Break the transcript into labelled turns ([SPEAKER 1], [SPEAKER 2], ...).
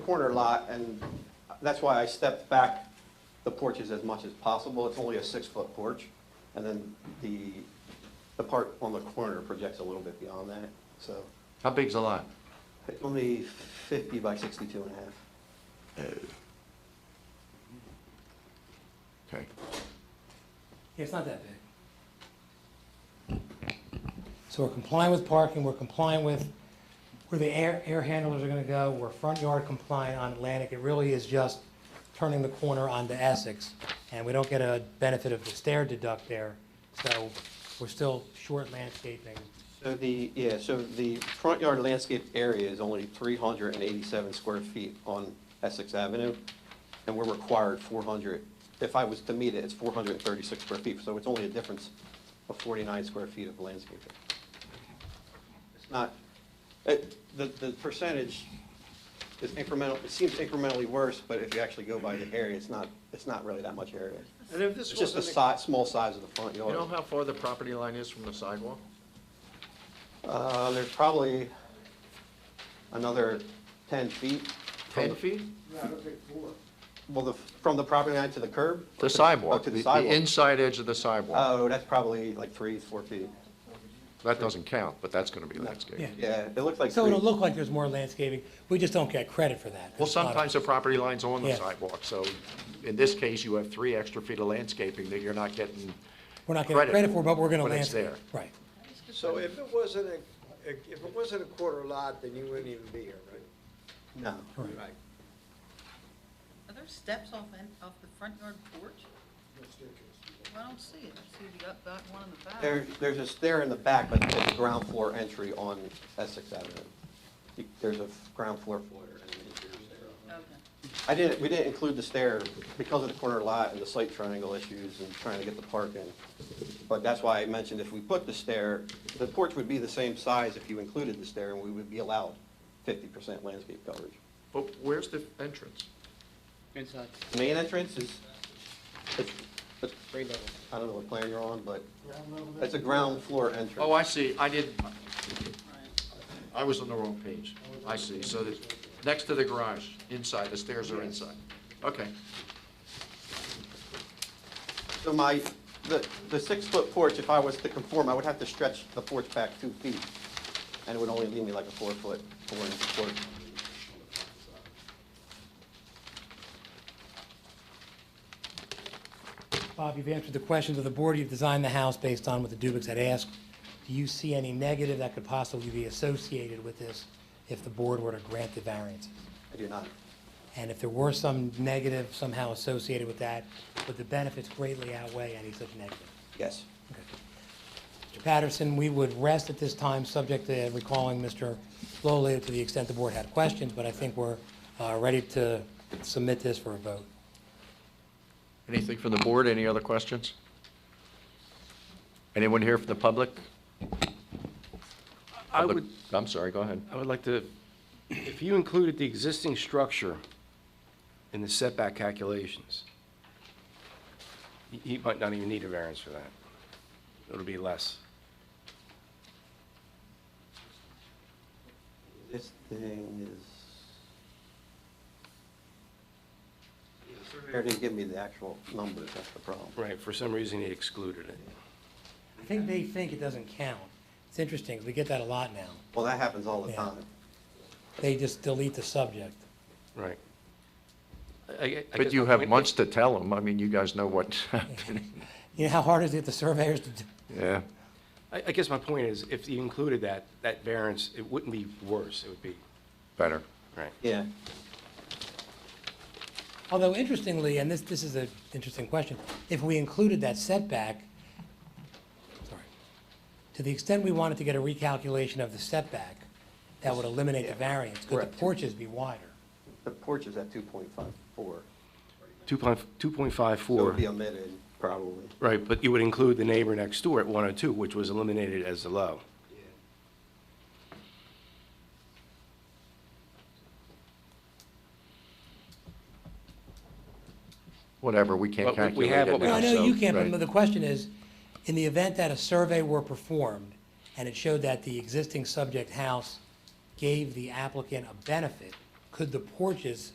[SPEAKER 1] corner lot, and that's why I stepped back the porches as much as possible. It's only a six-foot porch, and then the, the part on the corner projects a little bit beyond that, so
[SPEAKER 2] How big's the lot?
[SPEAKER 1] it's only 50 by 62 and a half.
[SPEAKER 2] Okay.
[SPEAKER 3] Yeah, it's not that big. So we're complying with parking, we're complying with where the air, air handlers are gonna go, we're front yard compliant on Atlantic. It really is just turning the corner onto Essex, and we don't get a benefit of the stair deduct there. So we're still short landscaping.
[SPEAKER 1] So the, yeah, so the front yard landscaped area is only 387 square feet on Essex Avenue, and we're required 400. If I was to meet it, it's 436 square feet, so it's only a difference of 49 square feet of landscaping. It's not, it- the, the percentage is incremental, it seems incrementally worse, but if you actually go by the area, it's not, it's not really that much area.
[SPEAKER 2] And if
[SPEAKER 1] It's
[SPEAKER 2] this
[SPEAKER 1] just the
[SPEAKER 2] was,
[SPEAKER 1] si, small size of the front
[SPEAKER 2] you
[SPEAKER 1] yard.
[SPEAKER 2] know how far the property line is from the sidewalk?
[SPEAKER 1] Uh, there's probably another ten feet. from
[SPEAKER 2] Ten
[SPEAKER 1] the-
[SPEAKER 2] feet?
[SPEAKER 1] Well, the, from the property line to the curb?
[SPEAKER 2] The sidewalk,
[SPEAKER 1] Oh, to
[SPEAKER 2] the
[SPEAKER 1] the
[SPEAKER 2] the
[SPEAKER 1] sidewalk.
[SPEAKER 2] inside edge of the sidewalk.
[SPEAKER 1] Oh, that's probably like three, four feet.
[SPEAKER 2] That doesn't count, but that's gonna be landscaped.
[SPEAKER 3] Yeah.
[SPEAKER 1] Yeah, it looks like
[SPEAKER 3] So it'll
[SPEAKER 1] three.
[SPEAKER 3] look like there's more landscaping, we just don't get credit for that.
[SPEAKER 2] Well, sometimes the property line's on the
[SPEAKER 3] Yeah.
[SPEAKER 2] sidewalk, so in this case, you have three extra feet of landscaping that you're not getting.
[SPEAKER 3] We're not getting credit for, but we're gonna
[SPEAKER 2] when it's
[SPEAKER 3] landscape.
[SPEAKER 2] there.
[SPEAKER 3] Right.
[SPEAKER 4] So if it wasn't a, if it wasn't a quarter lot, then you wouldn't even be here, right?
[SPEAKER 1] No.
[SPEAKER 3] Right.
[SPEAKER 5] Are there steps off, in- off the front yard porch? I don't see it. I see the up, back one in the back.
[SPEAKER 1] There, there's a stair in the back, but it's a ground floor entry on Essex Avenue. You- There's a ground floor foyer and an interior stair.
[SPEAKER 5] Okay.
[SPEAKER 1] I didn't, we didn't include the stair because of the corner lot and the site triangle issues and trying to get the park in. But that's why I mentioned if we put the stair, the porch would be the same size if you included the stair, and we would be allowed fifty percent landscape coverage.
[SPEAKER 2] But where's the entrance?
[SPEAKER 6] Inside.
[SPEAKER 1] The Main entrance is, it's, it's, I don't know what plan you're on, but it's a ground floor entrance.
[SPEAKER 2] Oh, I see, I did, I was on the wrong page. I see, so the, next to the garage, inside, the stairs are inside. Okay,
[SPEAKER 1] So my, the, the six-foot porch, if I was to conform, I would have to stretch the porch back two feet, and it would only leave me like a four-foot, four-inch porch.
[SPEAKER 3] Bob, you've answered the questions of the board. You've designed the house based on what the Dubics had asked. Do you see any negative that could possibly be associated with this if the board were to grant the variances?
[SPEAKER 1] I do not.
[SPEAKER 3] And if there were some negative somehow associated with that, would the benefits greatly outweigh any such negative?
[SPEAKER 1] Yes.
[SPEAKER 3] Mr. Patterson, we would rest at this time, subject to recalling Mr. Lowell to the extent the board had questions, but I think we're uh, ready to submit this for a vote.
[SPEAKER 2] anything from the board, any other questions? Anyone here from the public?
[SPEAKER 6] I would,
[SPEAKER 2] I'm sorry, go ahead.
[SPEAKER 6] I would like to, if you included the existing structure in the setback calculations, he- he might not even need a variance for that. It'll be less.
[SPEAKER 1] This thing is. The surveyor didn't give me the actual numbers, that's the problem.
[SPEAKER 6] Right, for some reason, he excluded it.
[SPEAKER 3] I think they think it doesn't count. It's interesting, 'cause we get that a lot now.
[SPEAKER 1] Well, that happens all the
[SPEAKER 3] Yeah.
[SPEAKER 1] time.
[SPEAKER 3] They just delete the subject.
[SPEAKER 6] Right. I- I- I
[SPEAKER 2] But
[SPEAKER 6] guess
[SPEAKER 2] you
[SPEAKER 6] my
[SPEAKER 2] have
[SPEAKER 6] point-
[SPEAKER 2] months to tell them, I mean, you guys know what's happening.
[SPEAKER 3] You know how hard is it the surveyors to do?
[SPEAKER 2] Yeah,
[SPEAKER 6] I, I guess my point is, if you included that, that variance, it wouldn't be worse, it would be,
[SPEAKER 2] better.
[SPEAKER 6] right.
[SPEAKER 1] Yeah.
[SPEAKER 3] Although interestingly, and this, this is an interesting question, if we included that setback, sorry, to the extent we wanted to get a recalculation of the setback, that would eliminate the variance, could the
[SPEAKER 1] correct.
[SPEAKER 3] porches be wider?
[SPEAKER 1] The porch is at two point five four,
[SPEAKER 6] Two point, two point five
[SPEAKER 1] so it
[SPEAKER 6] four.
[SPEAKER 1] would be omitted, probably.
[SPEAKER 6] Right, but you would include the neighbor next door at 102, which was eliminated as the low.
[SPEAKER 2] Whatever, we can't
[SPEAKER 6] But we- we
[SPEAKER 2] calculate
[SPEAKER 6] have
[SPEAKER 2] it
[SPEAKER 6] what we
[SPEAKER 3] No,
[SPEAKER 2] now,
[SPEAKER 3] I know
[SPEAKER 2] so-
[SPEAKER 3] you can't, but
[SPEAKER 2] right.
[SPEAKER 3] the question is, in the event that a survey were performed and it showed that the existing subject house gave the applicant a benefit, could the porches